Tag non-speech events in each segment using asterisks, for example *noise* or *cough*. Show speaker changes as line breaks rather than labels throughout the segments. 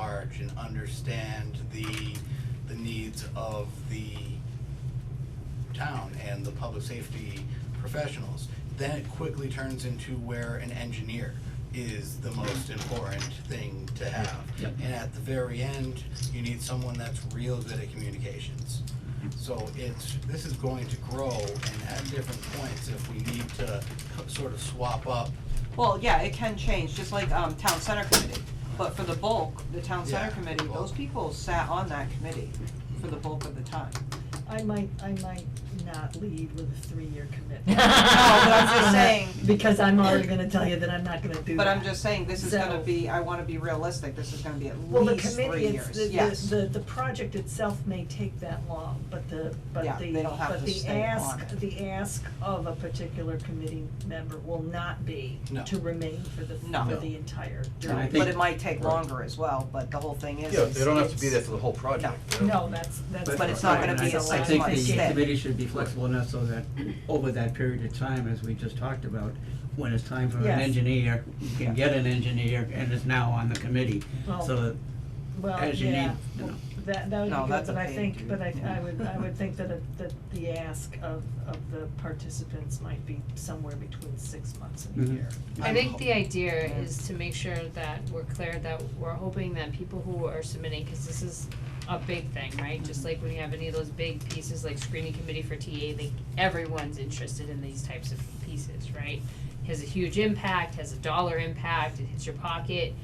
description, understand the, the needs of the town and the public safety professionals. Then it quickly turns into where an engineer is the most important thing to have.
Yep.
And at the very end, you need someone that's real good at communications. So it's, this is going to grow and at different points, if we need to co- sort of swap up
Well, yeah, it can change, just like, um, town center committee, but for the bulk, the town
Yeah,
center committee,
bulk.
those people sat on that committee for the bulk of the time.
I might, I might not lead with a three-year *laughs* commitment.
No, but I'm
just saying-
*laughs* Because I'm already gonna tell you that I'm not gonna do that.
But I'm just saying, this is gonna
So-
be, I wanna be realistic, this is gonna be at
Well, the
least three
committee, it's, the,
years, yes.
the, the, the project itself may take that long, but the, but
Yeah,
the,
they don't have
but
to
the
stay on
ask,
it.
the ask of a particular committee member will not be
No.
to remain for the,
No.
for the entire
And I
term.
think-
But it might take
Right.
longer as well, but the whole thing is,
Yeah,
is
they don't have to be there
it's-
for the whole project.
No.
you know?
No, that's, that's.
But it's not gonna be a
that's
I
lot.
think
six-month
the
stay.
committee should be flexible enough so that over that period of time, as we just talked about, when it's time for an
Yes.
engineer, you can get an engineer and is now on the committee,
Well,
so that
Well,
as you
yeah,
need, you
well,
know.
that, that would
No,
be good,
that's
but I
okay,
think,
dude.
but I, I
Yeah.
would, I would think *laughs* that, it- that the ask of, of the participants might be somewhere between six months and a
Mhm.
year.
I
I'm
think
ho-
the idea is to make sure that we're clear that we're hoping that people who are submitting, cause this is a big thing, right? Just like when you have any of those big pieces like screening committee for TA, like everyone's interested in these types of pieces, right? Has a huge impact, has a dollar impact, it hits your pocket,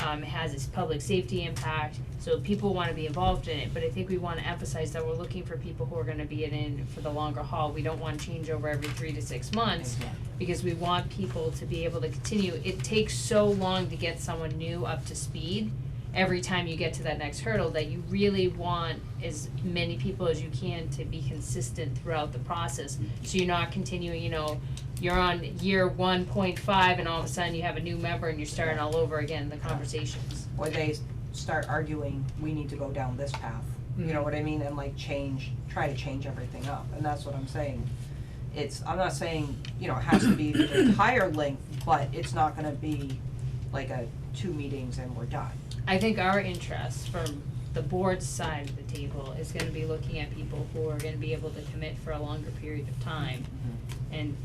um, it has its public safety impact, so people wanna be involved in it, but I think we wanna emphasize that we're looking for people who are gonna be in it for the longer haul, we don't wanna change over every three to six months because we want people to be able to continue. It takes so long to get someone new up to speed every time you get to that next hurdle that you really want as many people as you can to be consistent throughout the process. So you're not continuing, you know, you're on year one point five and all of a sudden you have a new member and you're starting all over again the conversations.
Or they s- start arguing, we need to go down this path, you know
Mhm.
what I mean, and like change, try to change everything up, and that's what I'm saying. It's, I'm not saying, you know, it has to be
*coughs*
the entire length, but it's not gonna be like a two meetings and we're done.
I think our interest from the board's side of the table is gonna be looking at people who are gonna be able to commit for a longer period of time and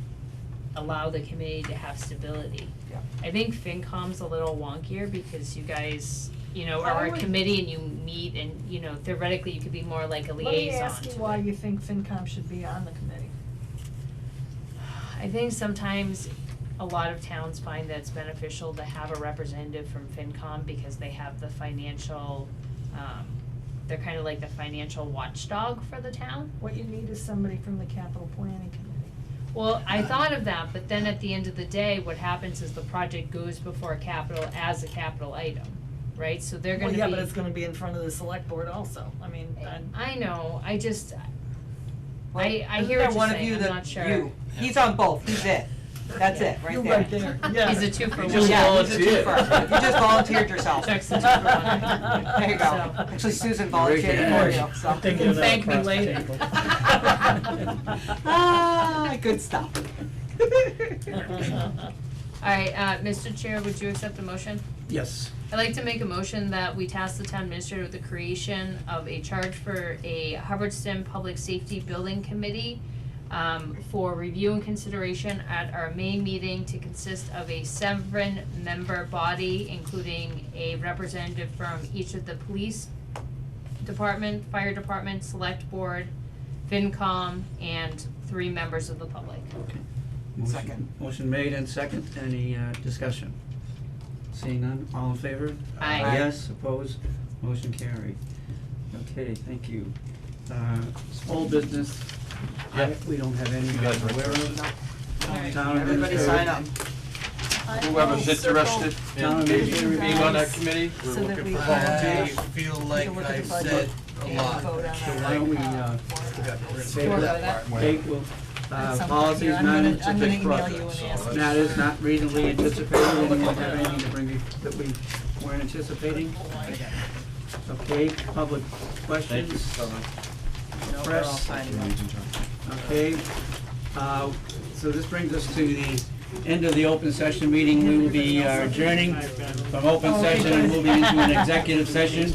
allow the committee to have stability.
Yeah.
I think FinCom's a little wonkier because you guys, you know,
I
are a
would-
committee and you meet and, you know, theoretically you could be more like a liaison
Let me ask
to
you
it.
why you think FinCom should be on the committee.
I think sometimes a lot of towns find that it's beneficial to have a representative from FinCom because they have the financial, um, they're kind of like the financial watchdog for the town.
What you need is somebody from the capital planning committee.
Well, I thought of that, but then at the end of the day, what happens is the project goes before capital as a capital item, right? So they're gonna be.
Well, yeah, but it's gonna be in front of the select board also, I mean, Eh, i
I know, I just,
Well,
I- I
isn't
hear
there
what you're
one of
saying,
you
I'm
that-
not sure.
you, he's on both, he's it, that's it, right there.
you're right
*laughs*
there, yeah.
he's a two for one.
just
Yeah, he's a
volunteered.
twofer. you just volunteered
*laughs*
yourself.
Checks the two for one.
There you go,
So-
actually Susan
You're right
volunteered for
there.
you, so.
I'm thinking
You
of that
thank me
across the
later.
*laughs*
table.
*laughs* Ah, good stuff.
Alright, uh, Mr. Chair, would you accept the motion?
Yes,
I'd like to make a motion that we task the town administrator with the creation of a charge for a Hubbardston Public Safety Building Committee um, for review and consideration at our May meeting to consist of a seven-member body, including a representative from each of the police department, fire department, select board, FinCom, and three members of the public.
motion-
Second.
Motion made and second, any uh discussion? Seeing none, all in favor?
Aye.
Uh,
Aye.
Yes, opposed, motion carried. Okay, thank you. Uh, old business, I,
Yeah.
we don't have any
You guys
I'm
are-
aware of.
Alright.
Town
Everybody
administrator-
sign up.
Whoever's interested
Town
in
administrator
being being on that
guys.
committee, we're
So that
looking
we
for
can-
I
volunteers.
feel like
look at the
I've
budget
said a
and
lot.
vote on
So
our,
why don't we,
uh,
uh,
Yeah, we're gonna
Say
do
that
part.
Take, well, uh,
At some point
policies,
here, I'm
not
gonna-
anticipated.
I'm gonna email
project,
you and
so
ask.
let's-
That is not reasonably anticipated, and we don't have anything to bring, you- that we weren't anticipating. Okay, public
Thank you,
questions,
Summer.
No, we're all
press.
signing up.
okay? Uh, so this brings us to the end of the open
Oh,
session meeting, we will be uh, adjourning from open session, and moving into an executive session.